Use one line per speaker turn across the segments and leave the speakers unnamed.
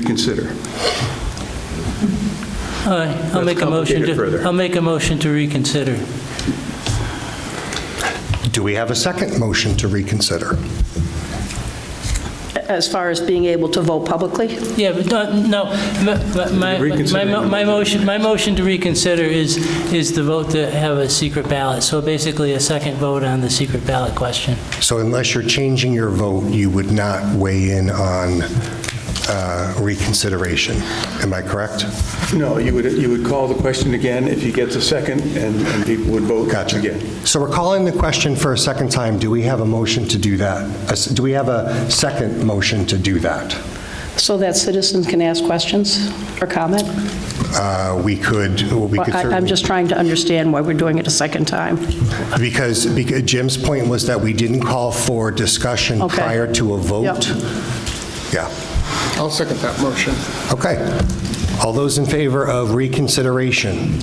reconsider.
All right, I'll
Let's
make a motion
complicate it further.
to, I'll make a motion to reconsider.
Do we have a second motion to reconsider?
As far as being able to vote publicly?
Yeah, but don't- no, my- my, my,
Reconsidering the
my
motion.
motion, my motion to reconsider is, is the vote to have a secret ballot. So basically a second vote on the secret ballot question.
So unless you're changing your vote, you would not weigh in on uh, reconsideration. Am I correct?
No, you would, you would call the question again if you get the second, and and people would vote
Gotcha.
again.
So we're calling the question for a second time. Do we have a motion to do that? A s- Do we have a second motion to do that?
So that citizens can ask questions or comment?
Uh, We could, we could
I-
certainly...
I'm just trying to understand why we're doing it a second time.
Because, because Jim's point was that we didn't call for discussion
Okay.
prior to a vote. Yeah.
I'll second that motion.
Okay. All those in favor of reconsideration?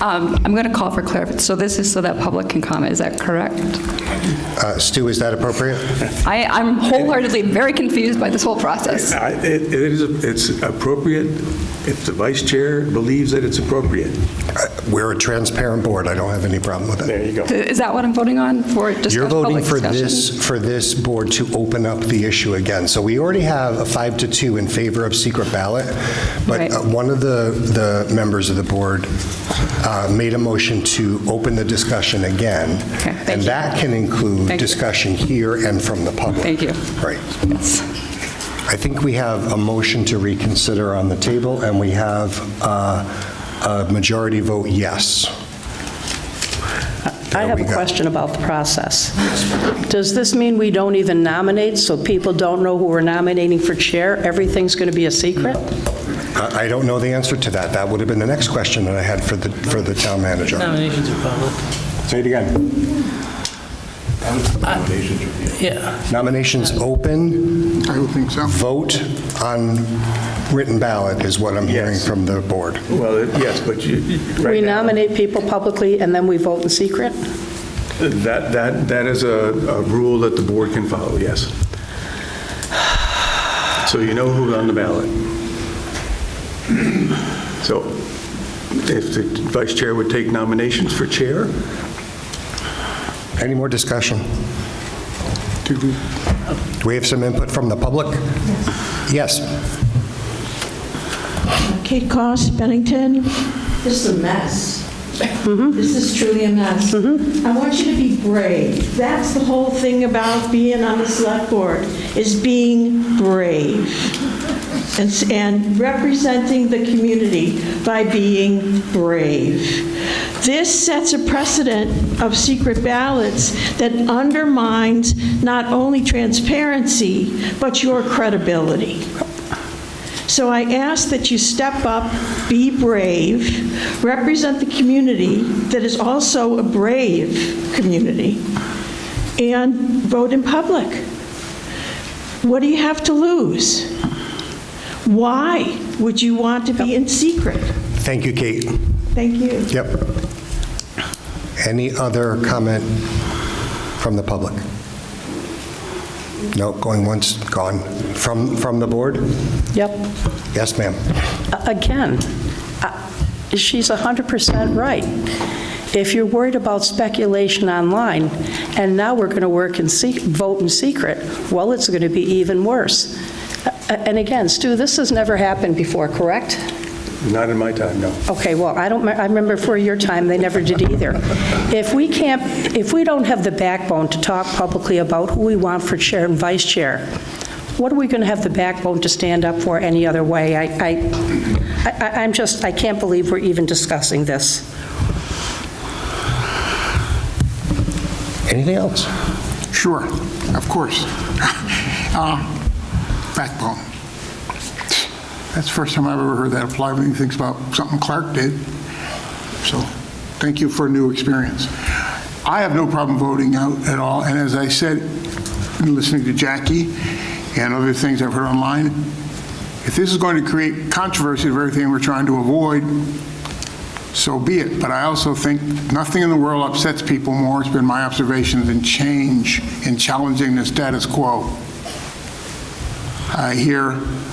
Um, I'm going to call for clarification. So this is so that public can comment, is that correct?
Uh, Stu, is that appropriate?
I, I'm wholeheartedly very confused by this whole process.
I- It it is, it's appropriate if the vice chair believes that it's appropriate.
Uh, We're a transparent board. I don't have any problem with
There
it.
you go.
Is that what I'm voting on for discuss-
You're voting
public
for
discussion?
this, for this board to open up the issue again. So we already have a five to two in favor of secret ballot, but
Right.
uh, one of the, the members of the board uh, made a motion to open the discussion again.
Okay, thank
And
you.
that can include
Thank you.
discussion here and from the public.
Thank you.
Right.
Yes.
I think we have a motion to reconsider on the table, and we have uh, a majority vote yes.
I have
we
a
go.
question about the process. Does this mean we don't even nominate, so people don't know who we're nominating for chair? Everything's going to be a secret?
I I don't know the answer to that. That would have been the next question that I had for the, for the town manager.
Nominations are public.
Say it again.
Yeah,
Nominations open,
I don't think so.
vote on written ballot is what I'm hearing
Yes.
from the board.
Well, it- yes, but you, you-
We
right now,
nominate people publicly and then we vote in secret?
that, that, that is a, a rule that the board can follow, yes. So you know who's on the ballot. So if the vice chair would take nominations for chair,
Any more discussion? Do we have some input from the public? Yes.
Kate Cost, Bennington. Mm-hmm. This is a mess. This is truly a mess. I want you to be brave. That's the whole thing about being on the select board, is being brave and s- and representing the community by being brave. This sets a precedent of secret ballots that undermines not only transparency, but your credibility. So I ask that you step up, be brave, represent the community that is also a brave community, and vote in public. What do you have to lose? Why would you want to be in secret?
Thank you, Kate.
Thank you.
Yep. Any other comment from the public? No, going once, gone. From, from the board?
Yep.
Yes, ma'am.
again, I- she's 100% right. If you're worried about speculation online, and now we're going to work and see, vote in secret, well, it's going to be even worse. A- And again, Stu, this has never happened before, correct?
not in my time, no.
Okay, well, I don't, me- I remember for your time, they never did either. If we can't, if we don't have the backbone to talk publicly about who we want for chair and vice chair, what are we going to have the backbone to stand up for any other way? I, I, I- I'm just, I can't believe we're even discussing this.
Anything else?
Sure, of course. Uh, Backbone. That's the first time I've ever heard that apply when you think about something Clark did. So thank you for a new experience. I have no problem voting out at all, and as I said, in listening to Jackie and other things I've heard online, if this is going to create controversy of everything we're trying to avoid, so be it. But I also think nothing in the world upsets people more, it's been my observation, than change and challenging the status quo. I hear